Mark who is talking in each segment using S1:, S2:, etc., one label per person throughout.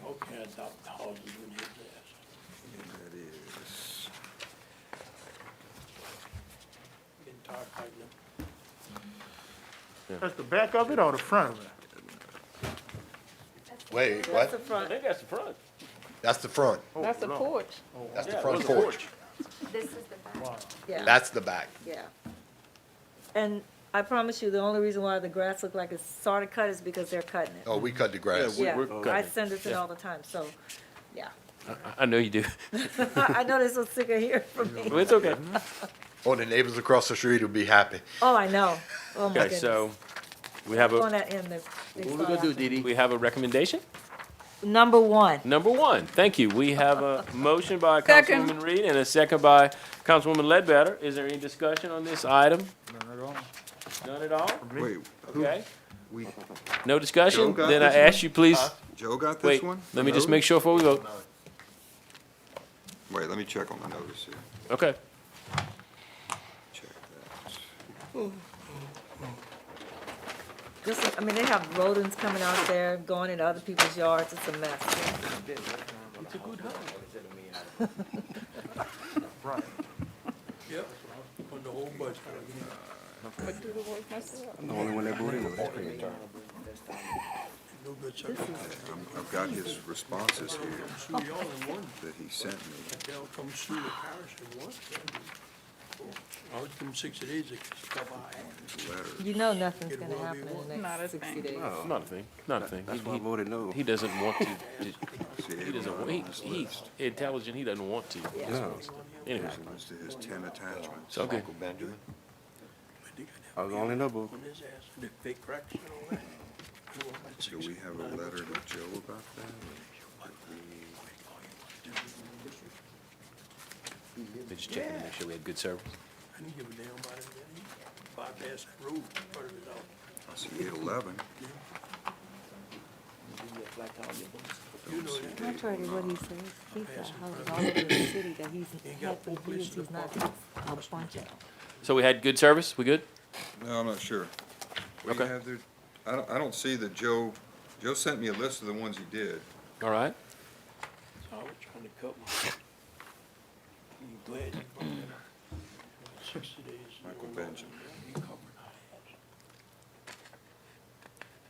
S1: adopt the hog as we need this.
S2: That is,
S1: Getting tired of fighting them.
S3: That's the back of it or the front of it?
S4: Wait,
S5: That's the
S4: what?
S1: I
S5: front,
S1: think that's the front.
S4: That's the front.
S5: that's the porch,
S4: That's the
S1: Yeah,
S4: front
S1: it was a
S4: porch.
S6: This is the back.
S5: yeah,
S4: That's the back.
S5: yeah. And I promise you, the only reason why the grass look like it's sort of cut is because they're cutting it.
S4: Oh, we cut the grass.
S5: Yeah,
S7: we're
S5: I
S7: cutting it.
S5: send it to them all the time, so, yeah.
S7: I know you do.
S5: I know this was sick of hearing from me.
S7: It's okay.
S4: Oh, the neighbors across the street will be happy.
S5: Oh, I know, oh my
S7: Okay,
S5: goodness.
S7: so we have
S5: On
S7: a,
S5: that end, they- they
S7: What
S5: saw that.
S7: Dee We have a recommendation.
S5: Number one,
S7: Number one, thank you. We have a motion by
S5: Second.
S7: Councilwoman Reed and a second by Councilwoman Ledbetter. Is there any discussion on this item? None at all. None
S2: wait,
S7: at all? Okay.
S2: we,
S7: No discussion?
S2: Joe got
S7: Then I
S2: this one?
S7: ask you, please,
S2: Joe got this
S7: wait,
S2: one?
S7: let me just make sure before we vote.
S2: sure. Wait, let me check on the notice here.
S7: Okay.
S2: Check
S5: this is, I mean, they have rodents coming out there, going into other people's yards, it's a mess.
S1: Yeah, on the whole budget.
S8: I'm the only one that voted no.
S1: No good circumstance.
S2: that. I'm- I've got his responses here
S1: Sue y'all in one,
S2: that he sent me.
S1: they'll come sue the parish in one. I was them sixty days to stop by.
S2: His letter.
S5: You know nothing's
S1: It
S5: gonna
S1: will be
S5: happen in the
S6: Not a
S5: next sixty
S6: thing.
S5: days.
S7: Not a thing, not a thing.
S8: That's
S7: He-
S8: why I
S7: he-
S8: voted no.
S7: He doesn't want to,
S2: See,
S7: he doesn't,
S2: everyone
S7: wa- he,
S2: on this
S7: he's intelligent, he doesn't want to.
S8: No.
S7: Anyway,
S2: list was to his ten attachments.
S7: It's okay.
S2: Uncle Benjamin.
S8: I was the only no vote.
S1: On his ass, and the big cracks and all that. You want that
S2: Do we have a
S1: 69?
S2: letter to Joe about that?
S7: they just checking to make sure we had good service.
S1: I didn't give a damn about it, man. Bypass that road, part of it all.
S2: I see eight eleven.
S1: You know that.
S9: Contrary to what he says, he's got houses all over the city that he's had for years, he's not just a bunch of.
S7: So we had good service, we good?
S2: No, I'm not sure. What do you
S7: Okay.
S2: have there? I don't, I don't see that Joe, Joe sent me a list of the ones he did.
S7: All right,
S1: I was trying to cut my. You glad you brought that up? Sixty days. you
S2: Michael
S1: know,
S2: Benjamin.
S1: You covered my ass.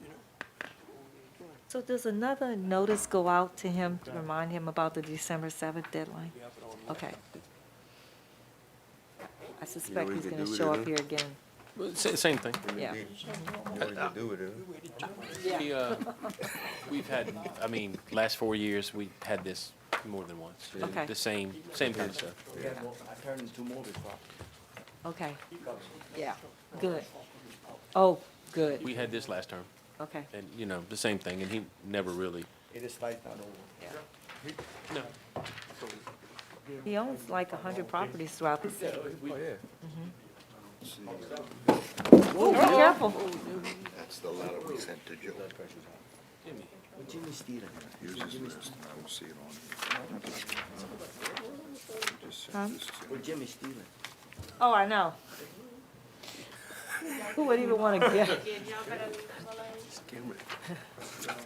S1: You know? that's the old way it
S5: So does another notice go out to him to remind him about the December seventh deadline?
S1: is. We have it on
S5: Okay. I suspect
S8: we
S5: he's
S8: could
S5: gonna
S8: do it
S5: show
S8: then.
S5: up here again,
S7: Well, sa- same thing.
S5: yeah.
S7: We, uh, we've had, I mean, last four years, we had this more than once. Uh,
S5: Okay.
S7: The same, same kind of stuff.
S5: Okay, yeah, good. Oh, good,
S7: We had this last term,
S5: okay.
S7: and, you know, the same thing, and he never really, no.
S5: He owns like a hundred properties throughout the city.
S8: Mm-hmm.
S5: Oh, yeah. Be careful,
S2: That's the letter we sent to Joe. Here's his list, and I will see it on. here. Just
S5: Huh?
S2: sent this to him.
S8: Jimmy Steven.
S5: oh, I know. Who would even wanna guess?
S2: Yeah, he sent,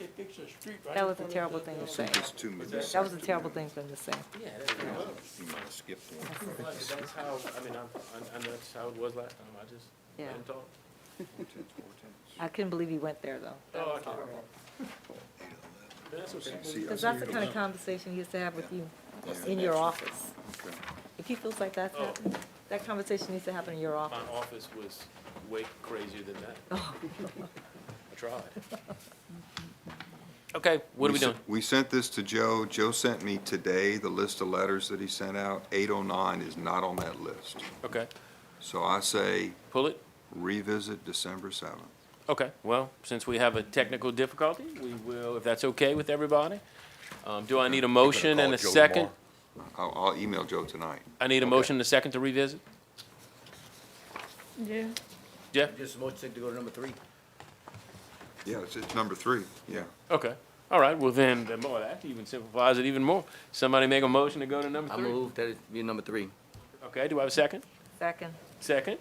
S1: It picks a street right.
S5: That
S1: in
S5: was a
S1: front of
S5: terrible
S1: the-
S5: thing to say,
S2: it's to me.
S5: that was a terrible thing for him to say.
S2: He might have skipped one.
S7: That's how, I mean, I, I know that's how it was last time, I just,
S5: Yeah.
S7: didn't talk.
S5: I couldn't believe he went there, though.
S7: Oh, I can't. That's okay.
S2: See, I
S5: Because
S2: see
S5: that's the
S2: it
S5: kind of
S2: on-
S5: conversation he used to have with you
S2: Yeah.
S5: in your office.
S2: okay.
S5: If he feels like that's
S7: Oh.
S5: happening, that conversation needs to happen in your
S7: My
S5: office.
S7: office was way crazier than that. I tried. Okay, what are we
S2: sen-
S7: doing?
S2: We sent this to Joe. Joe sent me today the list of letters that he sent out. Eight oh nine is not on that list.
S7: Okay,
S2: So I say
S7: pull it.
S2: revisit December seventh.
S7: Okay, well, since we have a technical difficulty, we will, if that's okay with everybody. Um, do I need a motion and a
S4: Joe
S7: second?
S4: tomorrow.
S2: I'll, I'll email Joe tonight.
S7: I need a motion and a second to revisit?
S6: Yeah.
S7: Jeff?
S8: Just voted to go to number three.
S2: Yeah, it's, it's number three, yeah.
S7: Okay, all right, well then, the more, that even simplifies it even more. Somebody make a motion to go to number
S8: I
S7: three?
S8: moved that it be number three.
S7: Okay, do I have a second?
S5: Second.
S7: Second?